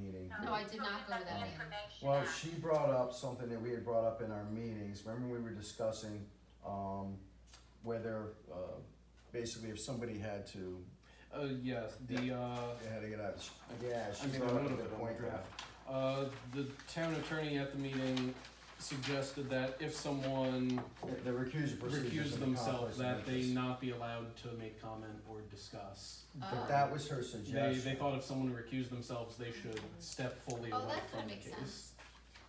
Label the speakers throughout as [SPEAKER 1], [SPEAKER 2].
[SPEAKER 1] I did not go to that meeting.
[SPEAKER 2] Well, she brought up something that we had brought up in our meetings, remember we were discussing, um, whether, uh, basically if somebody had to,
[SPEAKER 3] Uh, yes, the, uh,
[SPEAKER 2] they had to get out, of- yeah, she
[SPEAKER 3] I made a
[SPEAKER 2] brought up
[SPEAKER 3] note
[SPEAKER 2] a
[SPEAKER 3] of it
[SPEAKER 2] good
[SPEAKER 3] on
[SPEAKER 2] point
[SPEAKER 3] the
[SPEAKER 2] there.
[SPEAKER 3] draft. uh, the town attorney at the meeting suggested that if someone
[SPEAKER 2] The recusal procedures and
[SPEAKER 3] recused
[SPEAKER 2] the
[SPEAKER 3] themselves,
[SPEAKER 2] conflicts of
[SPEAKER 3] that they
[SPEAKER 2] interest.
[SPEAKER 3] not be allowed to make comment or discuss.
[SPEAKER 2] But
[SPEAKER 1] Oh.
[SPEAKER 2] that was her
[SPEAKER 3] They,
[SPEAKER 2] suggestion.
[SPEAKER 3] they thought if someone recused themselves, they should step fully
[SPEAKER 1] Oh,
[SPEAKER 3] away
[SPEAKER 1] that
[SPEAKER 3] from
[SPEAKER 1] kinda
[SPEAKER 3] the
[SPEAKER 1] makes
[SPEAKER 3] case.
[SPEAKER 1] sense.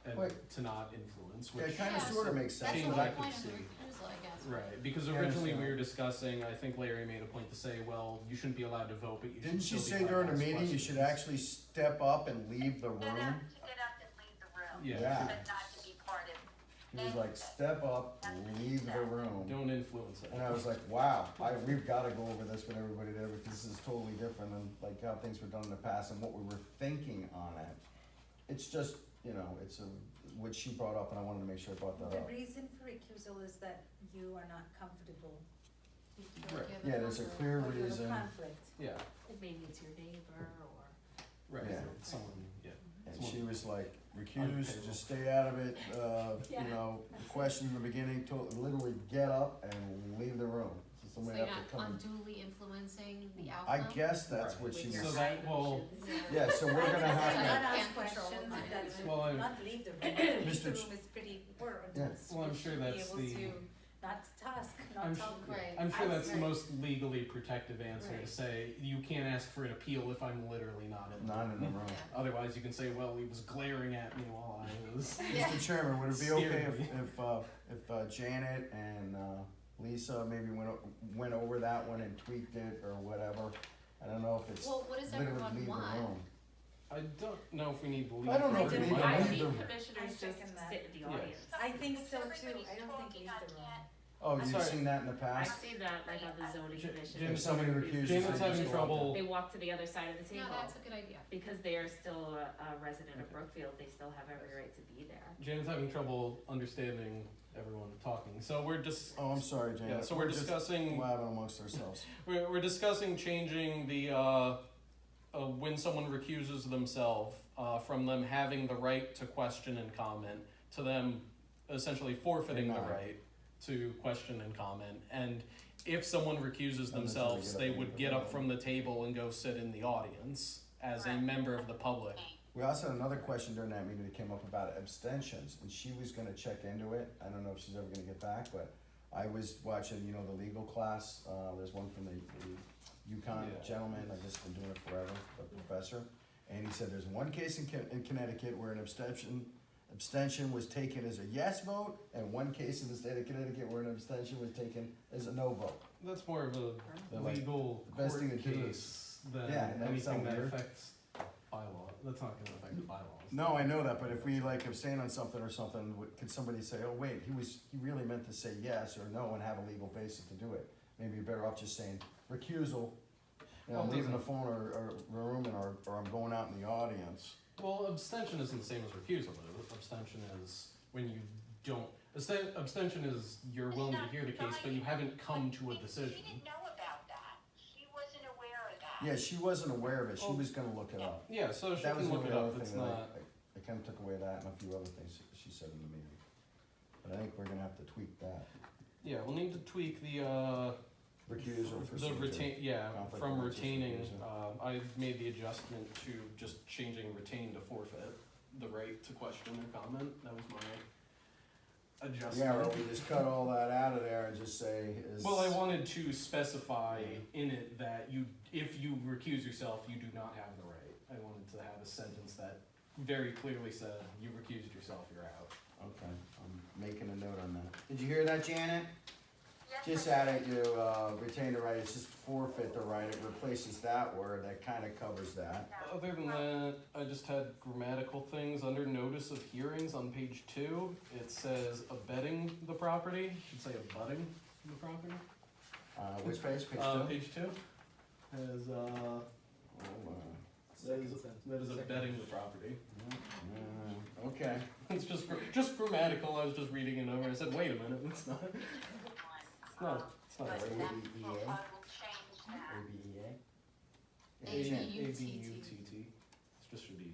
[SPEAKER 3] And
[SPEAKER 2] Wait.
[SPEAKER 3] to not influence,
[SPEAKER 2] Yeah,
[SPEAKER 3] which,
[SPEAKER 2] It kinda
[SPEAKER 1] Yeah.
[SPEAKER 2] sorta makes
[SPEAKER 1] That's the
[SPEAKER 2] sense.
[SPEAKER 3] Change
[SPEAKER 1] whole
[SPEAKER 3] I
[SPEAKER 1] point
[SPEAKER 3] could
[SPEAKER 1] of the
[SPEAKER 3] see.
[SPEAKER 1] recusal, I guess.
[SPEAKER 3] right, because
[SPEAKER 2] I
[SPEAKER 3] originally we
[SPEAKER 2] understand.
[SPEAKER 3] were discussing, I think Larry made a point to say, well, you shouldn't be allowed to vote, but you
[SPEAKER 2] Didn't she
[SPEAKER 3] should still be allowed to ask questions.
[SPEAKER 2] say during the meeting, you should actually step up and leave the
[SPEAKER 4] Get
[SPEAKER 2] room?
[SPEAKER 4] up, to get up and leave the room.
[SPEAKER 3] Yeah.
[SPEAKER 2] Yeah.
[SPEAKER 4] But not to be part of.
[SPEAKER 2] He was like, step up, leave the room.
[SPEAKER 3] Don't influence it.
[SPEAKER 2] And I was like, wow, I, we've gotta go over this with everybody there, because this is totally different than like how things were done in the past and what we were thinking on it. It's just, you know, it's a, what she brought up, and I wanted to make sure I brought that
[SPEAKER 5] The
[SPEAKER 2] up.
[SPEAKER 5] reason for recusal is that you are not comfortable.
[SPEAKER 3] Right.
[SPEAKER 2] Yeah, there's a clear
[SPEAKER 5] or you have a
[SPEAKER 2] reason.
[SPEAKER 5] conflict.
[SPEAKER 3] Yeah,
[SPEAKER 6] Maybe it's your neighbor or.
[SPEAKER 3] right,
[SPEAKER 2] Yeah.
[SPEAKER 3] someone, yeah.
[SPEAKER 2] And she was like, recuse, just stay out of it, uh, you know, question in the beginning, to, literally get up and leave the room. So
[SPEAKER 1] So
[SPEAKER 2] somebody
[SPEAKER 1] you're
[SPEAKER 2] have to
[SPEAKER 1] not
[SPEAKER 2] come.
[SPEAKER 1] unduly influencing the
[SPEAKER 2] I
[SPEAKER 1] outcome?
[SPEAKER 2] guess that's
[SPEAKER 3] Right.
[SPEAKER 2] what she
[SPEAKER 3] Which
[SPEAKER 2] was.
[SPEAKER 3] So that- well-
[SPEAKER 2] Yeah, so we're gonna have
[SPEAKER 5] I
[SPEAKER 1] Can't
[SPEAKER 5] think
[SPEAKER 1] control
[SPEAKER 5] it's not
[SPEAKER 1] my
[SPEAKER 5] ask questions, that's
[SPEAKER 1] movement.
[SPEAKER 3] Well, I-
[SPEAKER 5] not leave the room, leave
[SPEAKER 2] Mr.
[SPEAKER 5] the
[SPEAKER 2] Ch-
[SPEAKER 5] room is pretty important.
[SPEAKER 2] Yeah.
[SPEAKER 3] Well, I'm sure that's the-
[SPEAKER 5] You should be able to not task,
[SPEAKER 3] I'm
[SPEAKER 5] not
[SPEAKER 3] sure-
[SPEAKER 5] talk.
[SPEAKER 1] Right.
[SPEAKER 3] I'm sure
[SPEAKER 1] I-
[SPEAKER 3] that's the
[SPEAKER 1] right.
[SPEAKER 3] most legally protective answer to
[SPEAKER 1] Right.
[SPEAKER 3] say, you can't ask for an appeal if I'm literally not
[SPEAKER 2] to,
[SPEAKER 3] in.
[SPEAKER 2] not in the room.
[SPEAKER 1] Yeah.
[SPEAKER 3] Otherwise, you can say, well, he was glaring at me while I was.
[SPEAKER 1] Yeah.
[SPEAKER 2] Mr. Chairman, would it be okay if,
[SPEAKER 3] Scary.
[SPEAKER 2] if, uh, if uh, Janet and, uh, Lisa maybe went, o- went over that one and tweaked it or whatever? I don't know if it's
[SPEAKER 1] Well, what does
[SPEAKER 2] literally
[SPEAKER 1] everyone
[SPEAKER 2] leave the
[SPEAKER 1] want?
[SPEAKER 2] room.
[SPEAKER 3] I don't know if we need to leave.
[SPEAKER 2] I don't know
[SPEAKER 3] for
[SPEAKER 2] if we
[SPEAKER 3] every
[SPEAKER 2] need to
[SPEAKER 3] one.
[SPEAKER 6] I
[SPEAKER 2] leave
[SPEAKER 6] see
[SPEAKER 2] the-
[SPEAKER 5] I
[SPEAKER 6] commissioners just
[SPEAKER 5] second that.
[SPEAKER 6] sit in the
[SPEAKER 3] Yeah.
[SPEAKER 6] audience.
[SPEAKER 5] I think so too.
[SPEAKER 4] Everybody's
[SPEAKER 5] I don't think
[SPEAKER 4] talking,
[SPEAKER 5] leave
[SPEAKER 4] I
[SPEAKER 5] the room.
[SPEAKER 4] can't-
[SPEAKER 2] Oh, you've
[SPEAKER 3] sorry.
[SPEAKER 2] seen that in the
[SPEAKER 6] I
[SPEAKER 2] past?
[SPEAKER 6] see that like on the zoning
[SPEAKER 3] J-
[SPEAKER 6] commission.
[SPEAKER 3] James-
[SPEAKER 2] If somebody recuses.
[SPEAKER 3] James
[SPEAKER 2] they
[SPEAKER 3] is
[SPEAKER 2] just
[SPEAKER 3] having
[SPEAKER 2] go up.
[SPEAKER 3] trouble.
[SPEAKER 6] They walk to the other side of the
[SPEAKER 1] No,
[SPEAKER 6] table.
[SPEAKER 1] that's a good idea.
[SPEAKER 6] Because they are still a, a resident of
[SPEAKER 3] Okay.
[SPEAKER 6] Brookfield, they still have every right to be there.
[SPEAKER 3] Janet's having trouble understanding everyone talking, so we're just.
[SPEAKER 2] Oh, I'm sorry,
[SPEAKER 3] Yeah,
[SPEAKER 2] Janet.
[SPEAKER 3] so we're
[SPEAKER 2] just
[SPEAKER 3] discussing.
[SPEAKER 2] Laughing amongst ourselves.
[SPEAKER 3] We're, we're discussing changing the uh, uh, when someone recuses themselves uh, from them having the right to question and comment to them essentially forfeiting the
[SPEAKER 2] Denied.
[SPEAKER 3] right to question and comment. And if someone recuses
[SPEAKER 2] they
[SPEAKER 3] themselves,
[SPEAKER 2] get up
[SPEAKER 3] they
[SPEAKER 2] and
[SPEAKER 3] would
[SPEAKER 2] go
[SPEAKER 3] get up
[SPEAKER 2] down.
[SPEAKER 3] from the table and go sit in the audience as a
[SPEAKER 4] Correct.
[SPEAKER 3] member of the public.
[SPEAKER 2] We also had another question during that meeting that came up about abstentions, and she was gonna check into it. I don't know if she's ever gonna get back, but I was watching, you know, the legal class, uh, there's one from the, the UConn
[SPEAKER 3] Yeah.
[SPEAKER 2] gentleman, I guess been doing it forever, the professor. And he said there's one case in Con- in Connecticut where an abstention, abstention was taken as a yes vote, and one case in the state of Connecticut where an abstention was taken as a no vote.
[SPEAKER 3] That's more of
[SPEAKER 2] Yeah,
[SPEAKER 3] a
[SPEAKER 2] like,
[SPEAKER 3] legal
[SPEAKER 2] the best
[SPEAKER 3] court
[SPEAKER 2] thing to do
[SPEAKER 3] case than
[SPEAKER 2] Yeah, and that would
[SPEAKER 3] anything
[SPEAKER 2] sound
[SPEAKER 3] that
[SPEAKER 2] weird.
[SPEAKER 3] affects bylaw. That's not going to affect the bylaws.
[SPEAKER 2] No, I know that, but if we like abstain on something or something, w- could somebody say, oh, wait, he was, he really meant to say yes or no and have a legal basis to do it? Maybe you're better off just saying recusal, you know,
[SPEAKER 3] Well,
[SPEAKER 2] I'm leaving the
[SPEAKER 3] doesn't-
[SPEAKER 2] phone or, or room and or, or I'm going out in the audience.
[SPEAKER 3] Well, abstention isn't the same as refusal, though. Abstention is when you don't. absten- Abstention is you're willing to hear the case, but you haven't come to a
[SPEAKER 4] She- She
[SPEAKER 3] decision.
[SPEAKER 4] didn't know about that. She wasn't aware of that.
[SPEAKER 2] Yeah, she wasn't aware of it, she
[SPEAKER 3] Well,
[SPEAKER 2] was gonna look it up.
[SPEAKER 3] Yeah, so she
[SPEAKER 2] That was
[SPEAKER 3] can
[SPEAKER 2] the
[SPEAKER 3] look
[SPEAKER 2] only
[SPEAKER 3] it
[SPEAKER 2] other
[SPEAKER 3] up.
[SPEAKER 2] thing
[SPEAKER 3] It's
[SPEAKER 2] that I,
[SPEAKER 3] not.
[SPEAKER 2] I- I kinda took away that and a few other things that she said in the meeting. But I think we're gonna have to tweak that,
[SPEAKER 3] Yeah, we'll need to tweak the uh,
[SPEAKER 2] recusal for.
[SPEAKER 3] the retain. Yeah,
[SPEAKER 2] Conflict of
[SPEAKER 3] from
[SPEAKER 2] interest
[SPEAKER 3] retaining.
[SPEAKER 2] refusal.
[SPEAKER 3] Uh, I made the adjustment to just changing retain to forfeit the right to question or comment. That was my adjustment.
[SPEAKER 2] Yeah, or we just cut all that out of there and just say is.
[SPEAKER 3] Well, I wanted to specify in it that you, if you recuse yourself, you do not have the right. I wanted to have a sentence that very clearly said, you recused yourself, you're out.
[SPEAKER 2] Okay, I'm making a note on that. Did you hear that, Janet?
[SPEAKER 4] Yes,
[SPEAKER 2] Just
[SPEAKER 4] I-
[SPEAKER 2] added to, uh, retain the right, it's just forfeit the right, it replaces that word, that kinda covers that.
[SPEAKER 4] no.
[SPEAKER 3] Other than that, I just had grammatical things under notice of hearings on page two. It says abetting the property, It should say abutting the property.
[SPEAKER 2] Uh, which page, page two?
[SPEAKER 3] Uh, page two has, uh,
[SPEAKER 2] Hold on.
[SPEAKER 3] that is, that is abetting the property.
[SPEAKER 2] Mm, Okay,
[SPEAKER 3] It's just, gr- just grammatical, I was just reading it over and I said, wait a minute, it's not, it's
[SPEAKER 4] Um,
[SPEAKER 3] not, it's not
[SPEAKER 4] But
[SPEAKER 3] right.
[SPEAKER 4] that's, well,
[SPEAKER 2] ABEA.
[SPEAKER 4] I will change
[SPEAKER 2] E
[SPEAKER 4] that.
[SPEAKER 2] ABEA?
[SPEAKER 1] A B
[SPEAKER 3] Yeah,
[SPEAKER 1] U T T.
[SPEAKER 3] T T. This just should be